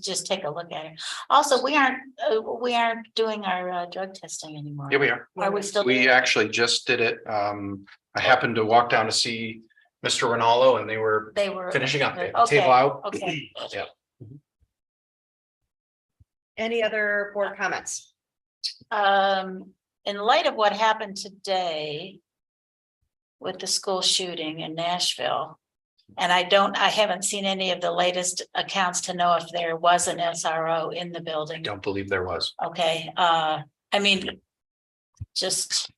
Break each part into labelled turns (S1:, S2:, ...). S1: just take a look at it. Also, we aren't, uh, we aren't doing our uh, drug testing anymore.
S2: Here we are.
S1: Are we still?
S2: We actually just did it. Um, I happened to walk down to see Mr. Ronaldo and they were
S1: They were.
S2: finishing up. They had the
S1: Okay,
S2: uh, Table out.
S1: okay.
S2: Yeah.
S3: Any other board comments?
S1: Um, in light of what happened today. With the school shooting in Nashville. And I don't, I haven't seen any of the latest accounts to know if there was an SRO in the building.
S2: Don't believe there was.
S1: Okay, uh, I mean. Just.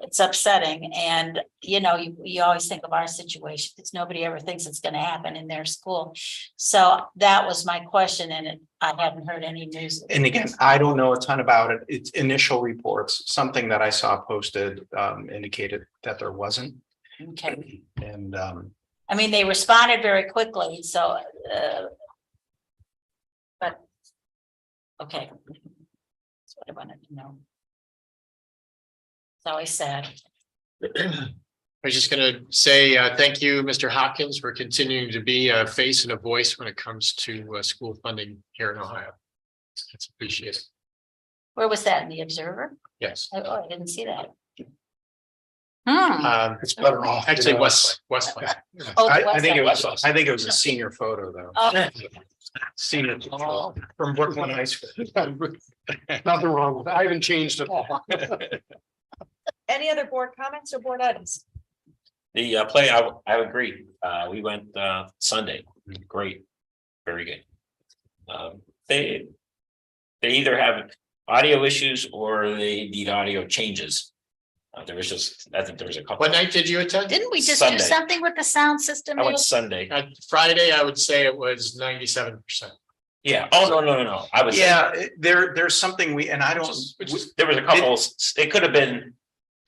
S1: It's upsetting and, you know, you, you always think of our situation, it's nobody ever thinks it's gonna happen in their school. So that was my question and it- I haven't heard any news.
S2: And again, I don't know a ton about it. It's initial reports, something that I saw posted um indicated that there wasn't.
S1: Okay,
S2: And um,
S1: I mean, they responded very quickly, so, uh. But. Okay. That's what I wanted to know. It's always sad.
S4: I was just gonna say, uh, thank you, Mr. Hopkins, for continuing to be a face and a voice when it comes to, uh, school funding here in Ohio. It's appreciated.
S1: Where was that in the Observer?
S4: Yes.
S1: Oh, Oh, I didn't see that. Hmm,
S4: Um,
S2: it's better off.
S4: actually, West, Westlake.
S1: Oh,
S2: I I think it was,
S4: Westlake.
S2: I think it was a senior photo though.
S1: oh,
S2: Senior photo from Brooklyn High School.
S4: Nothing wrong with it. I haven't changed at all.
S3: Any other board comments or board items?
S5: The uh, play, I, I agree. Uh, we went, uh, Sunday. Great. Very good. Um, they, they either have audio issues or they need audio changes. Uh, there was just, I think there was a couple.
S4: What night did you attend?
S1: didn't we just do
S5: Sunday.
S1: something with the sound system?
S5: I went Sunday.
S4: Uh, Friday, I would say it was ninety-seven percent.
S5: Yeah. Oh, no, no, no, no. I was.
S2: Yeah, it- there there's something we, and I don't.
S4: Just- which is-
S5: There was a couple, s- it could have been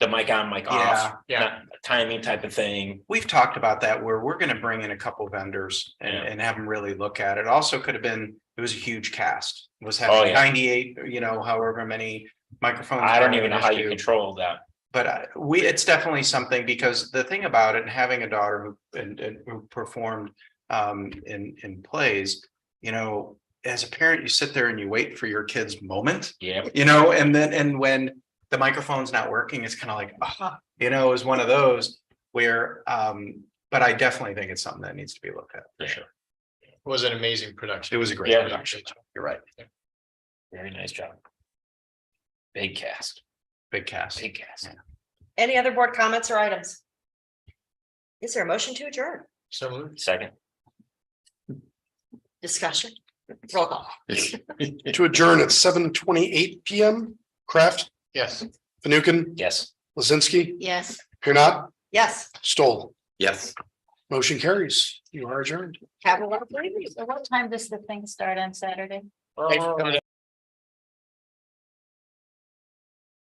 S5: the mic on, mic off,
S4: Yeah, yeah.
S5: not timing type of thing.
S2: We've talked about that where we're gonna bring in a couple vendors and,
S5: Yeah.
S2: and have them really look at it. Also could have been, it was a huge cast. Was
S5: Oh,
S2: having
S5: yeah.
S2: ninety-eight, you know, however many microphones.
S5: I don't
S2: were
S5: even
S2: an
S5: know how you
S2: issue.
S5: control that.
S2: But I- we, it's definitely something because the thing about it, and having a daughter who, and, and who performed um, in, in plays, you know, as a parent, you sit there and you wait for your kid's moment
S5: Yeah.
S2: you know, and then, and when the microphone's not working, it's kind of like, ah, you know, is one of those where, um, but I definitely think it's something that needs to be looked at.
S5: For sure.
S4: It was an amazing
S2: It
S4: production.
S2: was a great
S5: Yeah.
S2: production. You're right.
S5: Very nice job. Big cast,
S2: Big cast.
S5: big cast.
S3: Any other board comments or items? Is there a motion to adjourn?
S4: So moved.
S5: Second.
S3: Discussion? Roll call.
S6: to adjourn at seven twenty-eight PM. Kraft,
S4: Yes.
S6: Fanukin,
S5: Yes.
S6: Lizinski,
S1: Yes.
S6: here not,
S3: Yes,
S6: Stoll.
S5: Yes.
S6: Motion carries. You are adjourned.
S3: have a wonderful evening.
S1: So what time does the thing start on Saturday?
S4: Hey,